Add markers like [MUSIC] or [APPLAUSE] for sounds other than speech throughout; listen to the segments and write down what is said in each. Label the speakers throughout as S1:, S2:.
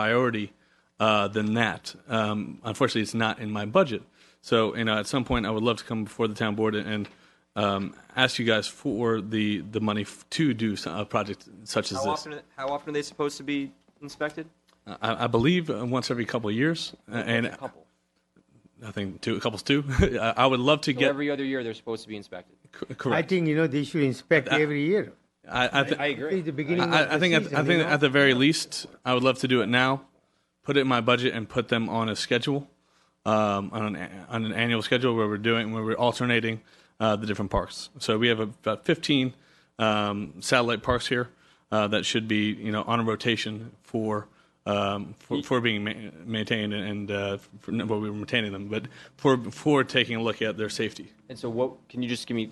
S1: priority uh, than that. Um, unfortunately, it's not in my budget. So, you know, at some point, I would love to come before the town board and um, ask you guys for the the money f- to do s- a project such as
S2: How
S1: this.
S2: often, are- how often are they supposed to be inspected?
S1: I, I believe uh, once every couple of years, uh, and
S2: A couple.
S1: I think two couples too. [LAUGHS] I I would love to
S2: So
S1: get
S2: every other year, they're supposed to be inspected.
S1: c-
S3: I
S1: correct.
S3: think, you know, they should inspect every year.
S1: I, I, th-
S2: I
S3: It's
S2: agree.
S3: the beginning of
S1: Uh, I, I
S3: the
S1: think at,
S3: season,
S1: I
S3: you
S1: think
S3: know?
S1: at the very least, I would love to do it now, put it in my budget and put them on a schedule, um, on an a- on an annual schedule where we're doing where we're alternating uh, the different parks. So we have about 15 um, satellite parks here uh, that should be you know on a rotation for. Um, for, for being ma- maintained and uh, for, no, well, we were maintaining them, but for for taking a look at their safety.
S2: And so what, can you just give me,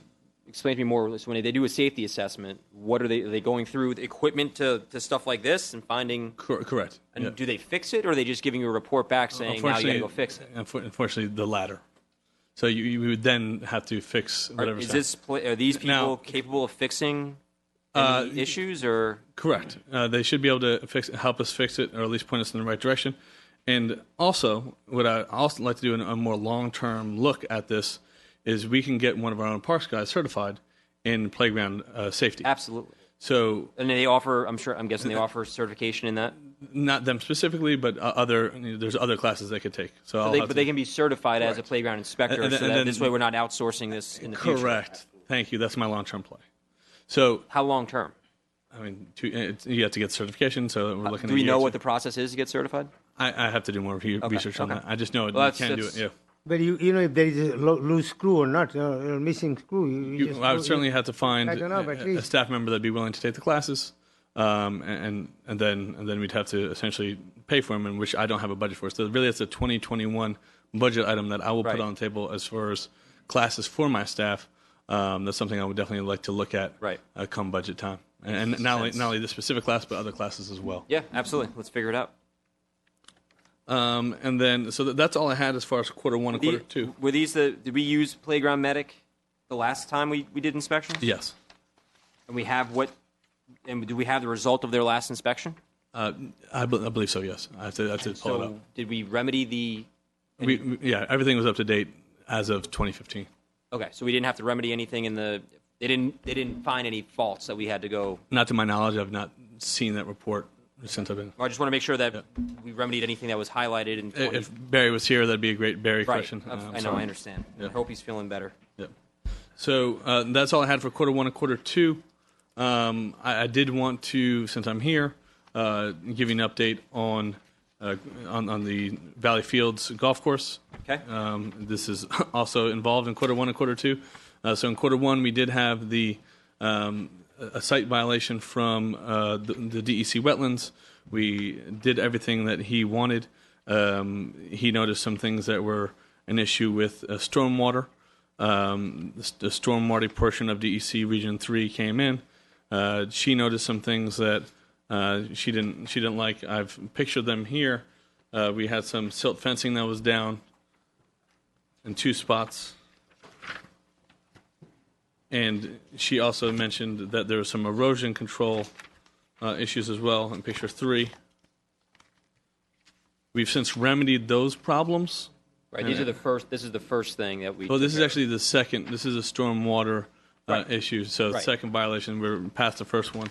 S2: explain to me more, so when they do a safety assessment, what are they, are they going through with equipment to, to stuff like this and finding,
S1: Cor- correct. Yeah.
S2: and do they fix it, or are they just giving you a report back saying, now you gotta go fix it?
S1: unfor- Unfortunately, the latter. So you, you would then have to fix whatever.
S2: Is
S1: stuff.
S2: this, pla- are these
S1: Now- Uh,
S2: people capable of fixing any issues, or?
S1: correct? Uh, they should be able to fix, help us fix it, or at least point us in the right direction. And also, what I also like to do in a more long-term look at this is we can get one of our own parks guys certified in playground uh, safety.
S2: Absolutely.
S1: So
S2: And they offer, I'm sure, I'm guessing they offer certification in that?
S1: not them specifically, but uh, other you know, there's other classes they could take. So I'll
S2: They,
S1: have
S2: but
S1: to-
S2: they can be certified as a
S1: Correct.
S2: playground inspector,
S1: And- and
S2: so
S1: then-
S2: that
S1: and
S2: this way we're not outsourcing this in the future.
S1: correct. Thank you. That's my long-term play. So
S2: How long term?
S1: I mean, two, it's, you have to get certification, so we're looking.
S2: Uh, Do
S1: at
S2: we know
S1: years.
S2: what the process is to get certified?
S1: I, I have to do more re- research on
S2: okay.
S1: that. I just know it.
S2: Well,
S1: you
S2: that's-
S1: can't do it.
S2: that's-
S1: Yeah,
S3: But you, you know, if there is a lo- loose screw or not, or or missing screw, you, you just.
S1: you, I
S3: go-
S1: would certainly have to find
S3: I don't know,
S1: a-
S3: but at
S1: a,
S3: least-
S1: staff member that'd be willing to take the classes, um, and and then and then we'd have to essentially pay for them, and which I don't have a budget for. So really, it's a 2021 budget item that I will
S2: Right.
S1: put on the table as far as classes for my staff. Um, that's something I would definitely like to look at
S2: Right.
S1: uh, come budget time, and, and not only not only this specific class, but other classes as well.
S2: Yeah, absolutely. Let's figure it out.
S1: Um, and then so that, that's all I had as far as quarter one and
S2: The-
S1: quarter two.
S2: Were these the? Did we use playground medic the last time we, we did inspections?
S1: Yes.
S2: And we have what? And do we have the result of their last inspection?
S1: Uh, I, bel I believe so. Yes, I have to, I have to pull it up.
S2: So did we remedy the?
S1: We, we- yeah, everything was up to date as of 2015.
S2: Okay, so we didn't have to remedy anything in the. They didn't. They didn't find any faults that we had to go.
S1: Not to my knowledge, I've not seen that report since I've been.
S2: I just want to make sure that we remedied anything that was highlighted in. 20,
S1: If Barry was here, that'd be a great Barry
S2: right.
S1: question.
S2: I
S1: Uh, I'm
S2: know.
S1: sorry.
S2: I understand. I hope he's feeling better.
S1: Yep. So uh, that's all I had for quarter one and quarter two. Um, I, I did want to, since I'm here, uh, give you an update on, uh, on on the Valley Fields golf course.
S2: Okay.
S1: Um, this is [LAUGHS] also involved in quarter one and quarter two. Uh, so in quarter one, we did have the um, a a site violation from uh, the, the DEC wetlands. We did everything that he wanted. Um, he noticed some things that were an issue with uh, stormwater um, the, the stormwater portion of DEC Region Three came in. Uh, she noticed some things that uh, she didn't she didn't like. I've pictured them here. Uh, we had some silt fencing that was down in two spots, and she also mentioned that there was some erosion control uh, issues as well in picture three. We've since remedied those problems.
S2: Right. These are the first. This is the first thing that we.
S1: Well, this is
S2: took
S1: actually the second. This is a stormwater uh,
S2: Right.
S1: issue, so
S2: Right.
S1: second violation. We're past the first one.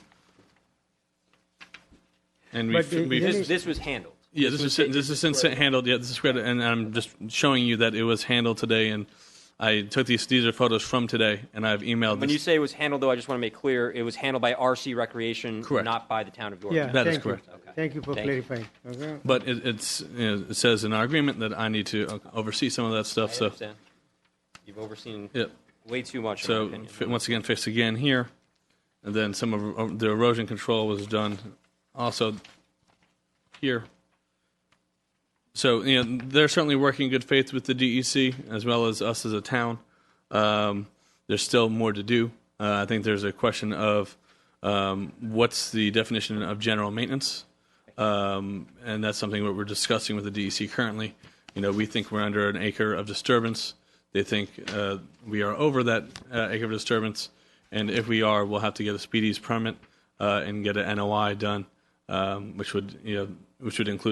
S1: And we,
S3: But
S1: f-
S3: the-
S1: we
S3: the
S2: care
S3: only-
S2: of. This, this was handled.
S1: yeah, this is this is since handled. Yeah, this is great, and I'm just showing you that it was handled today. And I took these. These are photos from today, and I've emailed.
S2: When
S1: this.
S2: you say it was handled, though, I just want to make clear it was handled by RC Recreation,
S1: Correct.
S2: not by the town of York.
S3: Yeah,
S1: That is
S3: thank you.
S1: correct.
S3: Thank you for
S2: Thank you.
S3: clarifying. Okay.
S1: but it, it's you know, it says in our agreement that I need to oversee some of that stuff.
S2: I
S1: so
S2: understand. You've overseen
S1: yeah.
S2: way too much.
S1: So
S2: in my opinion.
S1: fi- once again, fixed again here, and then some of of the erosion control was done also here. So you know they're certainly working in good faith with the DEC as well as us as a town. Um, there's still more to do. Uh, I think there's a question of um, what's the definition of general maintenance, um, and that's something that we're discussing with the DEC currently. You know, we think we're under an acre of disturbance. They think uh, we are over that uh, acre of disturbance, and if we are, we'll have to get a speedies permit uh, and get an NOI done, um, which would you know which would include